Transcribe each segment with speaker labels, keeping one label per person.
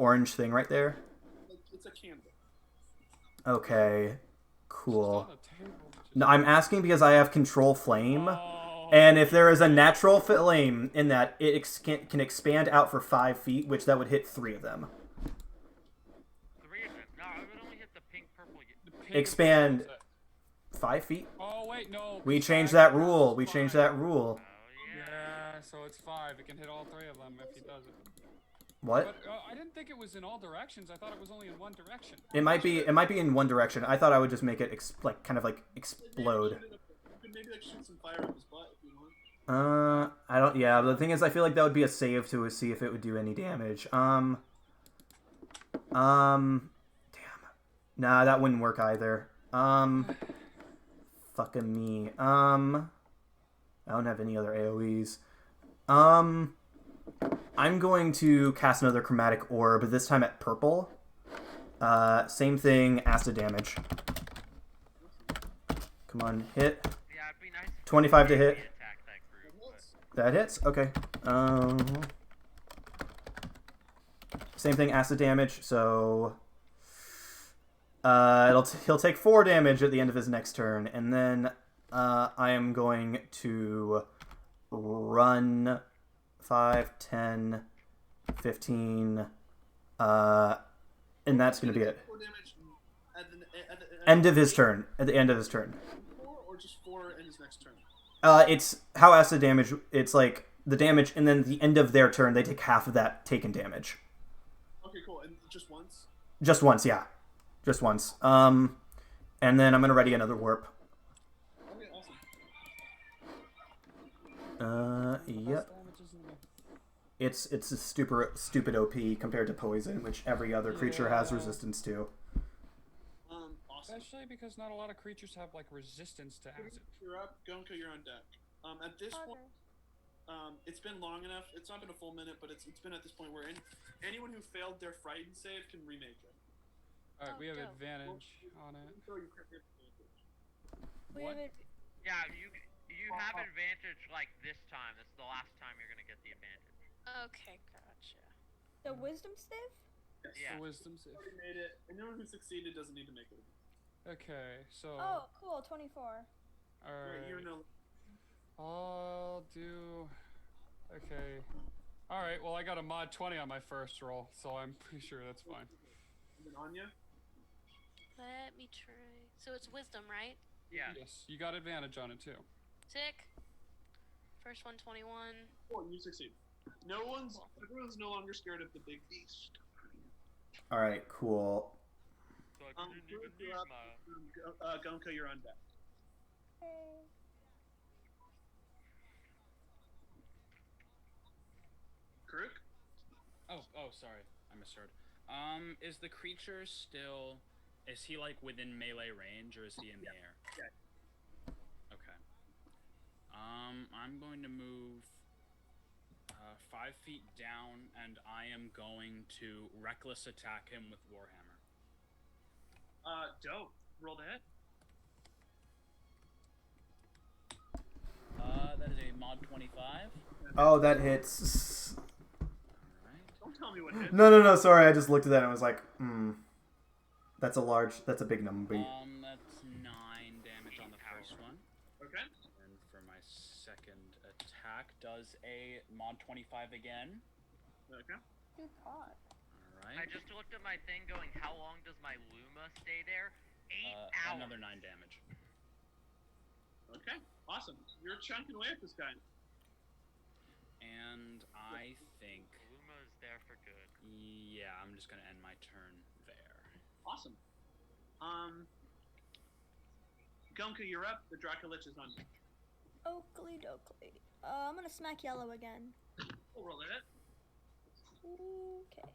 Speaker 1: orange thing right there?
Speaker 2: It's a candle.
Speaker 1: Okay, cool.
Speaker 3: It's not a table, it's
Speaker 1: No, I'm asking because I have control flame,
Speaker 3: Oh,
Speaker 1: and if there is a natural flame in that, it ex- can, can expand out for five feet, which that would hit three of them.
Speaker 4: Three of them. No, I would only hit the pink purple. y-
Speaker 3: the pink
Speaker 1: expand.
Speaker 3: is-
Speaker 1: Five feet?
Speaker 3: Oh wait, no.
Speaker 1: We
Speaker 3: it's
Speaker 1: changed
Speaker 3: five.
Speaker 1: that rule. We
Speaker 3: It's
Speaker 1: changed
Speaker 3: five.
Speaker 1: that rule.
Speaker 4: Oh yeah.
Speaker 3: Yeah, so it's five. It can hit all three of them if he does it.
Speaker 1: What?
Speaker 3: But uh, I didn't think it was in all directions. I thought it was only in one direction.
Speaker 1: It might be. It might be in one direction. I thought I would just make it ex- like kind of like explode.
Speaker 2: You could maybe like shoot some fire up his butt if you want.
Speaker 1: Uh, I don't. Yeah, the thing is, I feel like that would be a save to see if it would do any damage. Um. Um. Damn. Nah, that wouldn't work either. Um. Fucking me. Um. I don't have any other AOE's. Um. I'm going to cast another chromatic orb, this time at purple. Uh, same thing, acid damage. Come on, hit.
Speaker 4: Yeah, it'd be nice. if
Speaker 1: 25 to
Speaker 4: we
Speaker 1: hit.
Speaker 4: Attack that group. But
Speaker 1: That hits. Okay. Um, same thing, acid damage. So uh, it'll t- he'll take four damage at the end of his next turn, and then uh, I am going to run 5, 10, 15, uh, and that's going to be it.
Speaker 2: Four damage at the, at the, at
Speaker 1: End of his turn. At the end of his turn.
Speaker 2: four or just four in his next turn.
Speaker 1: Uh, it's how acid damage. It's like the damage, and then at the end of their turn, they take half of that taken damage.
Speaker 2: Okay, cool. And just once.
Speaker 1: Just once, yeah, just once. Um, and then I'm gonna ready another warp.
Speaker 2: Okay, awesome.
Speaker 1: Uh,
Speaker 3: Less
Speaker 1: yep.
Speaker 3: damage isn't the-
Speaker 1: It's it's a stupid stupid OP compared to poison, which every other creature has resistance to.
Speaker 2: Um, awesome.
Speaker 3: Especially because not a lot of creatures have like resistance to acid.
Speaker 2: You're up, Gonka. You're on deck. Um, at this point, um, it's been long enough. It's not been a full minute, but it's it's been at this point where any, anyone who failed their frightened save can remake it.
Speaker 3: All right,
Speaker 5: Oh,
Speaker 3: we have
Speaker 5: dope.
Speaker 3: advantage on it.
Speaker 2: So you crit- crit- crit-
Speaker 5: We
Speaker 3: What?
Speaker 5: have it.
Speaker 4: yeah, you you have
Speaker 2: Uh-huh.
Speaker 4: advantage like this time. That's the last time you're gonna get the advantage.
Speaker 5: Okay, gotcha. The wisdom save?
Speaker 4: Yeah.
Speaker 3: The wisdom save.
Speaker 2: already made it. Anyone who succeeded doesn't need to make it.
Speaker 3: Okay, so
Speaker 5: Oh, cool. 24.
Speaker 3: all
Speaker 2: Right, you're in a,
Speaker 3: I'll do. Okay. All right. Well, I got a mod 20 on my first roll, so I'm pretty sure that's fine.
Speaker 2: and then Anya.
Speaker 5: Let me try.
Speaker 6: So it's wisdom, right?
Speaker 4: Yeah.
Speaker 3: Yes, you got advantage on it too.
Speaker 6: Sick. First one, 21.
Speaker 2: Cool, you succeed. No one's. Everyone's no longer scared of the big beast.
Speaker 1: All right, cool.
Speaker 4: So I
Speaker 2: Um,
Speaker 4: didn't even
Speaker 2: Groot,
Speaker 4: use
Speaker 2: you're up.
Speaker 4: my-
Speaker 2: Um, Go- uh, Gonka, you're on deck.
Speaker 5: Okay.
Speaker 2: Karuk?
Speaker 7: Oh, oh, sorry, I misheard. Um, is the creature still? Is he like within melee range, or is he in the air? Okay. Um, I'm going to move uh, five feet down, and I am going to reckless attack him with warhammer.
Speaker 2: Uh, dope. Roll the hit.
Speaker 7: Uh, that is a mod twenty-five.
Speaker 1: Oh, that hits.
Speaker 7: All right.
Speaker 2: Don't tell me what hit.
Speaker 1: No, no, no. Sorry, I just looked at that and was like, hmm, that's a large. That's a big number.
Speaker 7: Um, that's nine damage on the first one.
Speaker 2: Okay.
Speaker 7: And for my second attack, does a mod twenty-five again.
Speaker 2: Okay.
Speaker 5: Good God.
Speaker 7: All right.
Speaker 4: I just looked at my thing, going, how long does my Luma stay there? Eight
Speaker 7: Uh,
Speaker 4: hours.
Speaker 7: another nine damage.
Speaker 2: Okay. Awesome. You're chunking away at this guy.
Speaker 7: And I think,
Speaker 4: Luma is there for good.
Speaker 7: yeah, I'm just gonna end my turn there.
Speaker 2: Awesome. Um, Gonka, you're up. The Dracolich is on deck.
Speaker 5: Oakley dokley. Uh, I'm gonna smack yellow again.
Speaker 2: We'll roll the hit.
Speaker 5: Okay.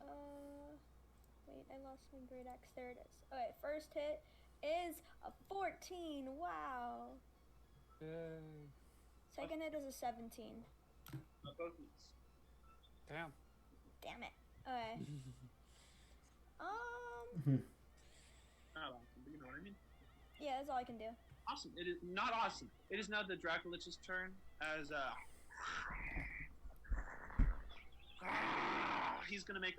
Speaker 5: Uh, wait, I lost my great axe. There it is. Okay, first hit is a 14. Wow.
Speaker 3: Yay!
Speaker 5: Second hit is a 17.
Speaker 2: Uh, both knees.
Speaker 3: Damn.
Speaker 5: Damn it. Okay. um,
Speaker 2: Not Oh, awesome, but you know what I mean.
Speaker 5: yeah, that's all I can do.
Speaker 2: Awesome. It is not awesome. It is now the Dracolich's turn as, uh, he's gonna make a